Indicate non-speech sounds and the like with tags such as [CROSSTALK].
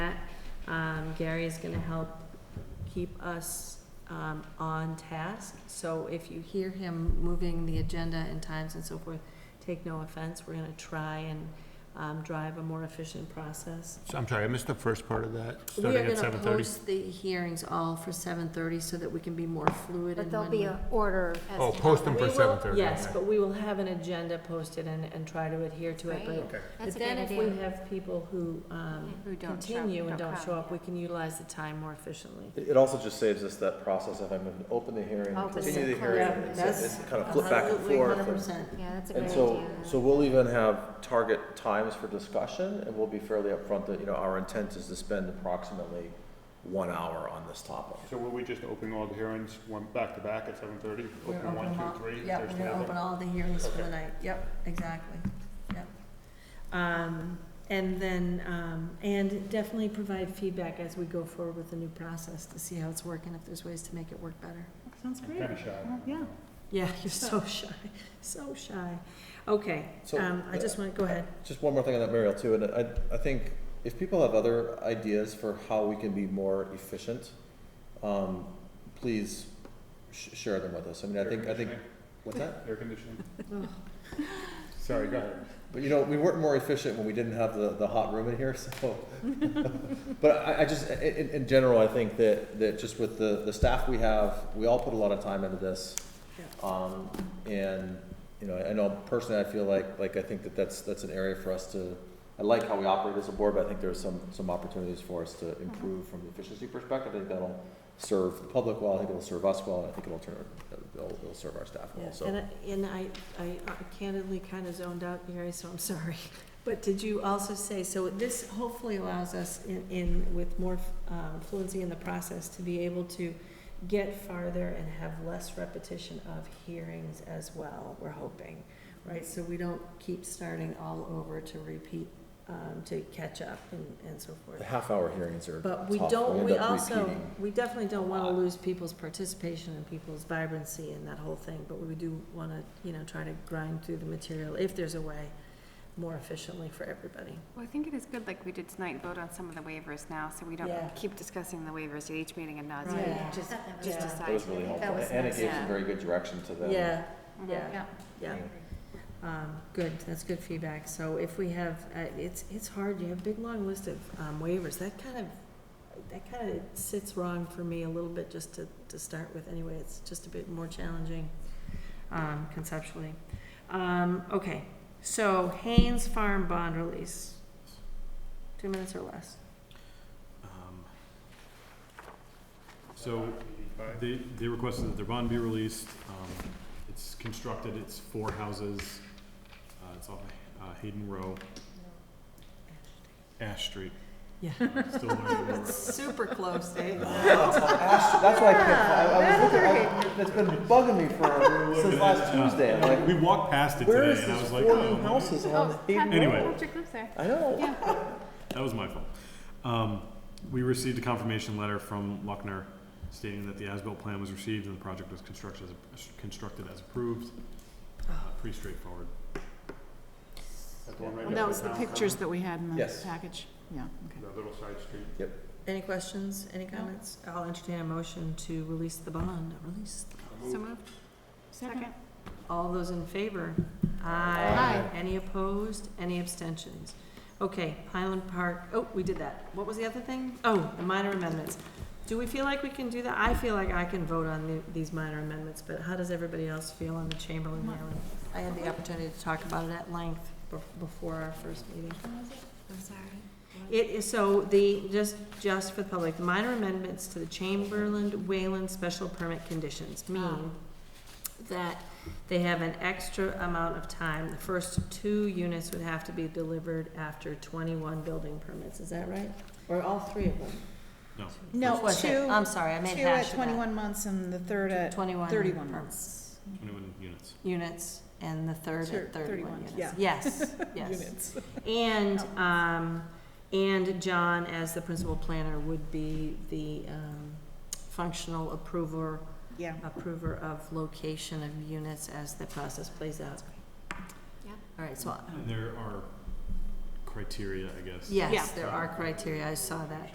Um, Gary is gonna help keep us, um, on task. So if you hear him moving the agenda and times and so forth, take no offense. We're gonna try and, um, drive a more efficient process. So I'm sorry, I missed the first part of that, We starting are at gonna seven thirty. post the hearings all for seven thirty so that we can be more fluid But in there'll when be we. an order as to. Oh, post them how- for We will- seven thirty. Yes, but we will have an agenda posted and, and try to adhere to it, Great. but. Okay, That's a But then good if we idea. have people who, um, Who don't show- continue and don't come, show up, yeah. we can utilize the time more efficiently. It it also just saves us that process of having to open the hearing, Open continue the it, hearing, yeah, and that's it's kind of flip back and forth. Hundred and- percent. Yeah, that's a great And idea. so, so we'll even have target times for discussion, and we'll be fairly upfront that, you know, our intent is to spend approximately one hour on this topic. So were we just opening all the hearings, one back to back at seven thirty? We're Open one, opening all- two, three, Yeah, there's we're the gonna open other. all the hearings for the Okay. night, yep, exactly, yep. Um, and then, um, and definitely provide feedback as we go forward with the new process to see how it's working, if there's ways to make it work better. Sounds I'm kinda shy. Yeah. Yeah, [LAUGHS] you're so shy, so shy. Okay, So, um, I just want, go ahead. Just one more thing on that, Mariel, too, and I, I think if people have other ideas for how we can be more efficient, um, please sh- share them with us. I mean, I Air think, I think, conditioning, what's that? Air [LAUGHS] conditioning. Sorry, go ahead. But you know, we weren't more efficient when we didn't have the, the hot room in here, [LAUGHS] so. But I, I just, i- in, in general, I think that, that just with the, the staff we have, we all put a lot of time into this. Um, and, you know, I know personally, I feel like, like I think that that's, that's an area for us to, I like how we operate as a board, but I think there's some, some opportunities for us to improve from the efficiency perspective. I think that'll serve the public well, I think it'll serve us well, and I think it'll turn, it'll, it'll serve our staff well, so. And I, and I, I uh, candidly kind of zoned out, Gary, so I'm [LAUGHS] sorry. But did you also say, so this hopefully allows us in, in, with more um, fluency in the process to be able to get farther and have less repetition of hearings as well, we're hoping, right? So we don't keep starting all over to repeat, um, to catch up and, and so forth. The half-hour hearings are But we tough. don't, end we up also, repeating. we definitely don't wanna lot. lose people's participation and people's vibrancy and that whole thing, but we do wanna, you know, try to grind through the material, if there's a way, more efficiently for everybody. Well, I think it is good, like we did tonight, vote on some of the waivers now, so we Yeah. don't keep discussing the waivers at each meeting and not, Right. Yeah. just, That just was- decide. That was really helpful, was and it nice. gave Yeah. some very good direction to them. Yeah, Mhm. yeah, Yeah. yeah, um, good, that's good feedback, so if we have, uh, it's, it's hard, you have a big, long list of, um, waivers, that kind of, that kind of sits wrong for me a little bit, just to, to start with, anyway, it's just a bit more challenging, um, conceptually. Um, okay, so Haynes Farm bond release, two minutes or less. Um, So they, they requested that their bond be released. Um, It's constructed, it's four houses. Uh, It's off uh, Hayden Row, Ash Street. [LAUGHS] Yeah. Still learning the road. Super close, Dave. That's why I couldn't, I, I was looking, I, that's been bugging me for, since last Yeah. Tuesday, I'm We like, walked past it where today is and I this was like, four new oh, houses on Hayden Road? Anyway. I know, that was my fault. Um, We received a confirmation letter from Luckner stating that the as-built plan was received and the project was constructed, as- constructed as approved. Uh, Pretty straightforward. That's the one right Well, next that to was the town pictures common, that we had in the Yes. package, yeah, okay. The little side street. Any questions, any No. comments? I'll entertain a motion to release the bond, release. So moved? Second? All those in favor? Aye. Any opposed? Any abstentions? Okay, Highland Park, oh, we did that. What was the other thing? Oh, the minor amendments. Do we feel like we can do that? I feel like I can vote on the- these minor amendments, but how does everybody else feel on the Chamberlain Island? I had the opportunity to talk about it at length be- before our first meeting. I'm sorry. It is, so the, just, just for the public, the minor amendments to the Chamberlain Wayland special permit conditions mean that they have an extra amount of time. The first two units would have to be delivered after twenty-one building permits, is that right? Or all three of them? No. No, Which was it? two- I'm sorry, I made hash of that. months and the third at 21 31 per- months. Twenty-one units. Units, and the third Sure, at thirty-one units. 31, yeah. [LAUGHS] Yes, yes. And, um, and John, as the principal planner, would be the, um, functional approver, Yeah. approver of location of units as the process plays out. Yeah. All right, so, Um, And there are criteria, I guess. yes, there are criteria, I saw that.